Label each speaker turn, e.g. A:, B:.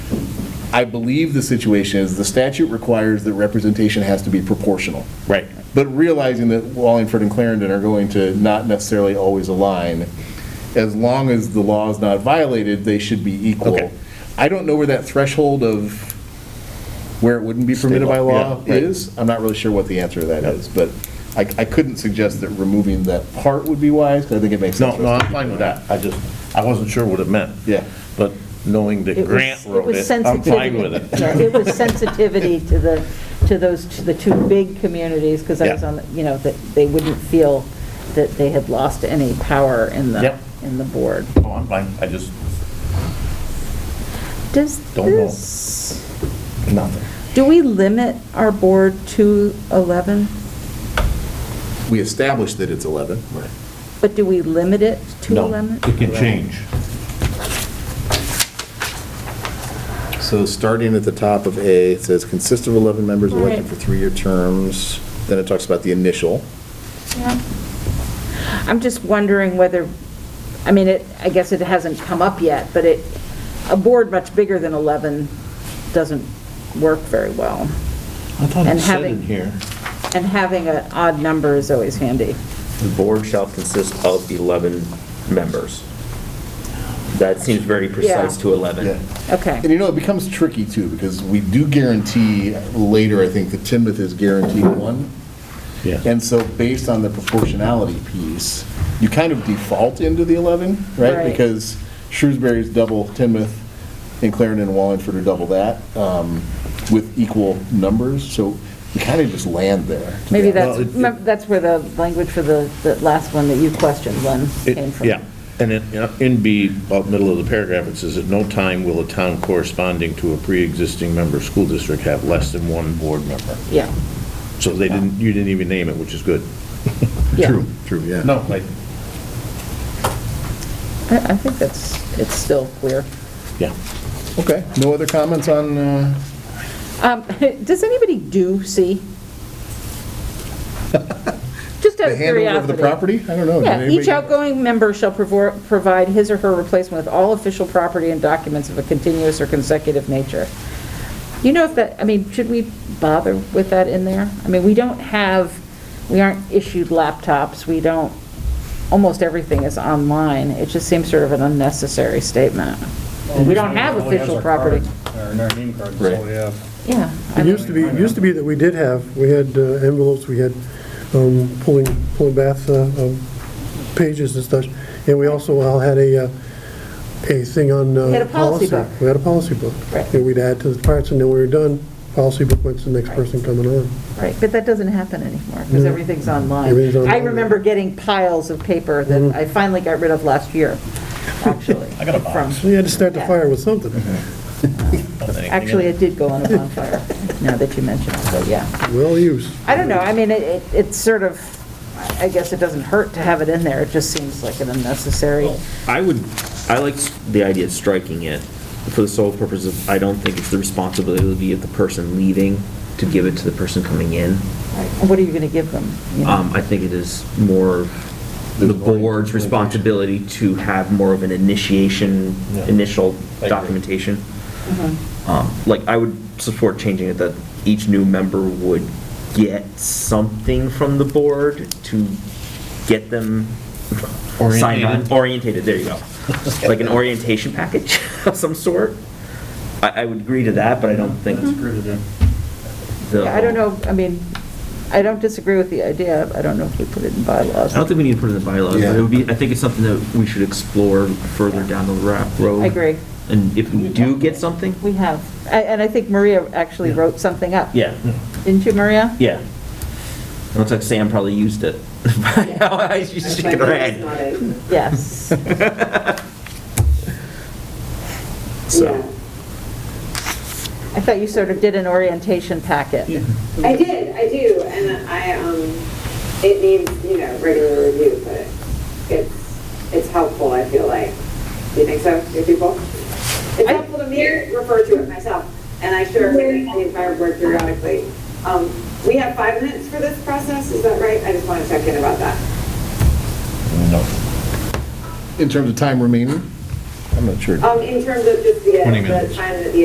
A: I believe the situation is, the statute requires that representation has to be proportional.
B: Right.
A: But realizing that Wallingford and Clarendon are going to not necessarily always align, as long as the law is not violated, they should be
B: Okay.
A: equal. I don't know where that threshold of where it wouldn't be permitted by
B: State law,
A: law
B: yeah, right.
A: is. I'm not really sure what the answer to that is, but I, I couldn't suggest that removing that part would be wise, because I think it makes sense.
B: No,
A: for
B: no,
A: us to
B: I'm
A: keep
B: fine
A: it.
B: with that. I just, I wasn't sure what it meant.
A: Yeah.
B: But knowing that
C: It was-
B: Grant
C: it
B: wrote
C: was
B: it, I'm fine
C: sensitivity.
B: with it.
C: Yeah, It was sensitivity to the, to those, to the two big communities, because I was
B: Yeah.
C: on, the- you know, that they wouldn't feel that they had lost any power in the,
B: Yep.
C: in the board.
B: Oh, I'm fine, I just,
C: Does
B: Don't know.
C: this,
B: nothing.
C: do we limit our board to 11?
A: We established that it's 11.
C: But do we limit it to
B: No,
C: 11?
B: It can change.
A: So starting at the top of A, it says, consists of 11 members elected
C: Right.
A: for three-year terms. Then it talks about the initial.
C: I'm just wondering whether, I mean, it, I guess it hasn't come up yet, but it, a board much bigger than 11 doesn't work very well.
B: I thought
C: And
B: it said
C: having-
B: in here.
C: And having an odd number is always handy.
D: The board shall consist of 11 members. That seems very precise
C: Yeah.
D: to 11.
C: Okay.
A: And you know, it becomes tricky too, because we do guarantee, later, I think, that Timoth is guaranteed one.
B: Yeah.
A: And so based on the proportionality piece, you kind of default into the 11, right?
C: Right.
A: Because Shrewsbury's double Timoth, and Clarendon and Wallingford are double that, um, with equal numbers, so you kind of just land there.
C: Maybe
B: Well,
C: that's,
B: it-
C: mem- that's where the language for the, the last one that you questioned, Len,
B: It-
C: came from.
B: Yeah, and in, in B, about middle of the paragraph, it says, "At no time will a town corresponding to a pre-existing member school district have less than one board member."
C: Yeah,
B: So they didn't, you didn't even name it, which is good.
C: yeah.
A: true, yeah.
B: No, like,
C: I, I think that's, it's still clear.
B: yeah.
A: Okay, no other comments on, uh,
C: Um, does anybody do C? Just out
A: the
C: of
A: handover of the
C: curiosity.
A: property? I don't
E: Oh,
A: know. did
C: Yeah, each
A: anybody-
C: outgoing member shall provor- provide his or her replacement with all official property and documents of a continuous or consecutive nature. You know if that, I mean, should we bother with that in there? I mean, we don't have, we aren't issued laptops, we don't, almost everything is online. It just seems sort of an unnecessary statement. We don't have
F: Only has
C: official
F: our card,
C: property.
F: Our name card, that's all we have.
C: Yeah. I
E: It used
C: mean,
E: to be, it used to be that we did have, we had uh, envelopes, we had um, pulling, pulling bath uh, um, pages and such, and we also all had a, uh, a thing on uh,
C: We had
E: policy.
C: a policy book.
E: We had a policy book.
C: Right.
E: And we'd add to the parts, and then we were done, policy book went to the next
C: Right.
E: person coming on.
C: Right, but that doesn't happen anymore, because
E: No.
C: everything's online.
E: Mm. Everything's online. Mm-hmm.
C: I remember getting piles of paper that I finally got rid of last year, actually. I got a
E: So you had to start the
C: Yeah.
E: fire with something.
C: Actually, it did go on a bonfire, now that you mention it, but yeah.
E: Well used.
C: I don't know, I mean, it, it- it's sort of, I guess it doesn't hurt to have it in there, it just seems like an unnecessary.
D: I would, I like s- the idea of striking it for the sole purpose of, I don't think it's the responsibility of the person leaving to give it to the person coming in.
C: And What are you going to give them? you know?
D: Um, I think it is more the board's responsibility to have more of an initiation,
B: Yeah.
D: initial
B: agree.
D: documentation.
C: Mm-hmm.
D: Um, Like, I would support changing it that each new member would get something from the board to get them signed
B: Orientated.
D: on, orientated, there you go. Like an orientation package of some sort. I, I would agree to that, but I don't think
F: That's great, yeah.
D: the.
C: Mm-hmm. Yeah, I don't know, I mean, I don't disagree with the idea, I don't know if we put it in bylaws.
D: I don't think we need to put it in the bylaws, but it would be, I think it's something that we should explore further down the ra- road.
C: I agree.
D: And if we do get something,
C: We have, A- and I think Maria actually
D: Yeah.
C: wrote something up.
D: yeah,
C: Didn't you, Maria?
D: yeah. It Looks like Sam probably used it. She's shaking her head.
C: Yes.
D: So,
C: I thought you sort of did an orientation packet.
G: I did, I do, and I, um, it needs, you know, regular review, but it's, it's helpful, I feel like. Do you think so, your people? It's
C: I-
G: helpful to me, to refer to it myself, and I share it with the entire board periodically. Um, we have five minutes for this process, is that right? I just want to check in about that.
B: No.
A: In terms of time remaining? I'm not sure.
G: Um, in terms of just the,
B: 20
G: the
B: minutes.
G: time that the